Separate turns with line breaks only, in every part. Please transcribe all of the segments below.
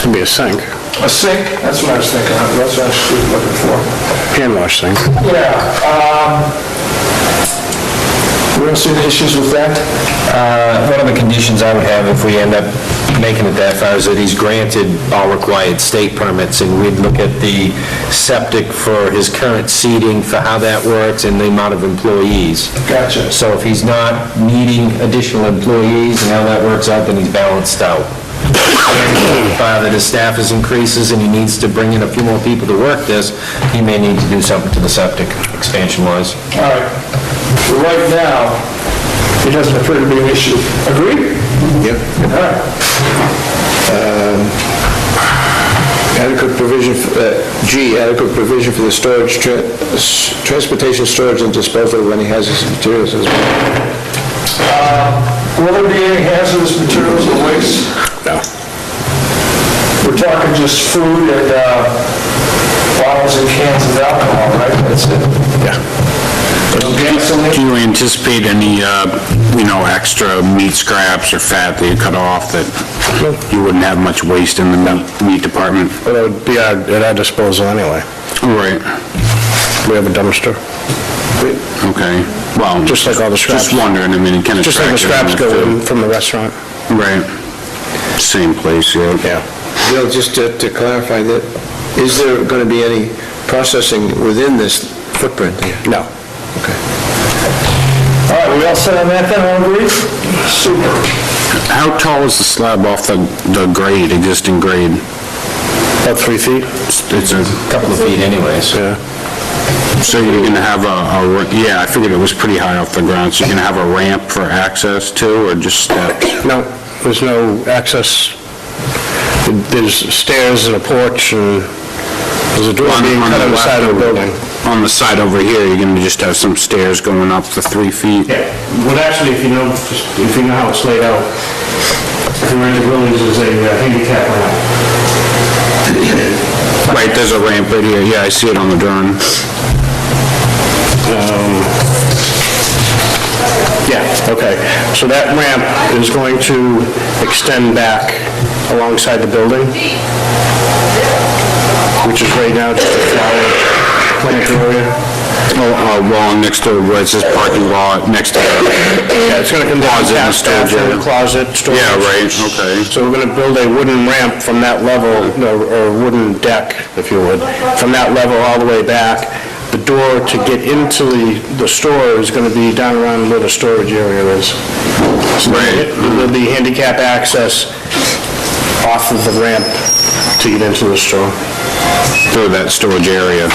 can be a sink,
A sink, that's what I was thinking of, that's what I was looking for.
hand wash sink.
Yeah, um, we don't see any issues with that?
Uh, One of the conditions I would have if we end up making it that far is that he's granted all required state permits, and we'd look at the septic for his current seating, for how that works, and the amount of employees.
Gotcha.
So if he's not needing additional employees and how that works out, then he's balanced out. Uh, That his staff is increases and he needs to bring in a few more people to work this, he may need to do something to the septic expansion-wise.
All right, for right now, it doesn't appear to be an issue. Agreed?
Yep.
All right,
Um, Adequate provision, f- uh, G, adequate provision for the storage, tra- s- transportation, storage, and disposal of any hazardous materials as well.
Uh, will there be any hazardous materials or waste?
No.
We're talking just food and uh, bottles and cans of alcohol, right? That's it.
Do you anticipate any, uh, you know, extra meat scraps or fat that you cut off that you wouldn't have much waste in the meat- meat department?
But it would be our- at our disposal anyway.
Right,
We have a dumpster.
okay. Well,
Just like all the scraps.
Just wondering, I mean, it can attract...
Just like the scraps
everyone,
go in from the restaurant.
too. Right. Same place, yeah.
Bill, just to to clarify that, is there going to be any processing within this footprint here?
No.
All right, we all set on that then, all agree? Super.
How tall is the slab off the the grade, existing grade?
About three feet?
It's it's a...
Couple of feet anyways.
Yeah.
So you're gonna have a, a ra- yeah, I figured it was pretty high off the ground, so you're gonna have a ramp for access too, or just steps?
No, there's no access. There's stairs and a porch and there's a door
On-
being
on
cut
the
on the
left
side of the
over-
building.
On the side over here, you're gonna just have some stairs going up to three feet?
Yeah, well, actually, if you know, if you know how it's laid out, if you rent the buildings, there's a uh, handicap ramp.
Right, there's a ramp right here, yeah, I see it on the drawing.
Yeah, okay. So that ramp is going to extend back alongside the building, which is right now just a flower plant area.
Oh, uh, wall next to, where it says parking lot, next to...
Yeah, it's gonna come down
Closet and
past
storage
bathroom,
area.
closet, storage.
Yeah, right, okay.
So we're gonna build a wooden ramp from that level, no, or wooden deck, if you would, from that level all the way back. The door to get into the, the store is gonna be down around where the storage area is. So
Right.
There'll be handicap access off of the ramp to get into the store.
Through that storage area.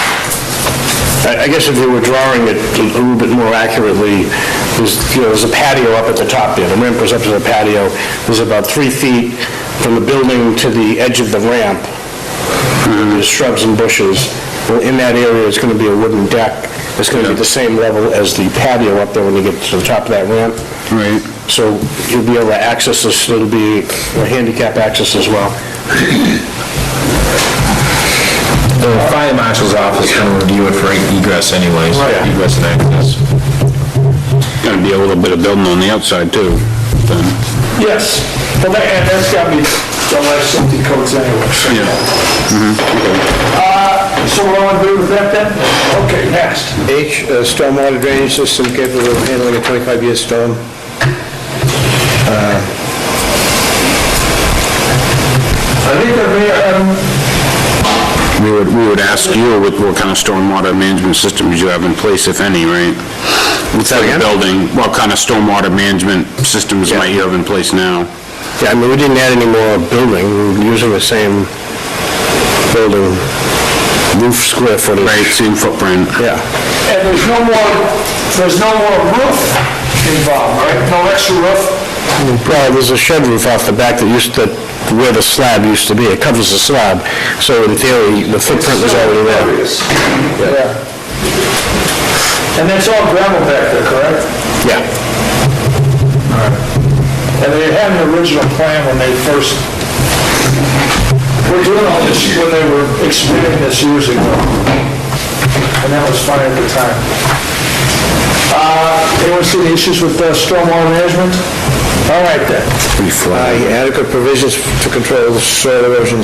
I I guess if you were drawing it a little bit more accurately, there's, you know, there's a patio up at the top there, the ramp goes up to the patio, there's about three feet from the building to the edge of the ramp,
Mm-hmm.
there's shrubs and bushes, Well, in that area, it's gonna be a wooden deck, it's gonna be the same level as the patio up there when you get to the top of that ramp,
Right.
so you'll be able to access this, it'll be a handicap access as well.
The fire marshal's office is gonna review it for egress anyways,
yeah.
egress and access.
Gonna be a little bit of building on the outside too, then.
Yes, well, that, and that's got me, don't have safety codes anyway, so.
Yeah.
Uh, so we're all agree with that then? Okay, next.
H, uh, stormwater drainage system capable of handling a 25-year storm.
Uh, I think that we, um,
We would, we would ask you what, what kind of stormwater management systems you have in place, if any, right? What's that
again?
Building, what kind of stormwater management systems might you have in place now?
Yeah, I mean, we didn't add any more building, we we're using the same building, roof square footage.
Right, same footprint.
Yeah,
and there's no more, there's no more roof involved, right? No extra roof?
well, there's a shed roof off the back that used to, where the slab used to be, it covers the slab, so in theory, the footprint was already there.
Yeah. And that's all gravel back there, correct?
Yeah,
And they had an original plan when they first were doing all this, when they were expanding this years ago. And that was fine at the time. Uh, anyone see any issues with uh, stormwater management? All right then.
I, adequate provisions to control soil erosion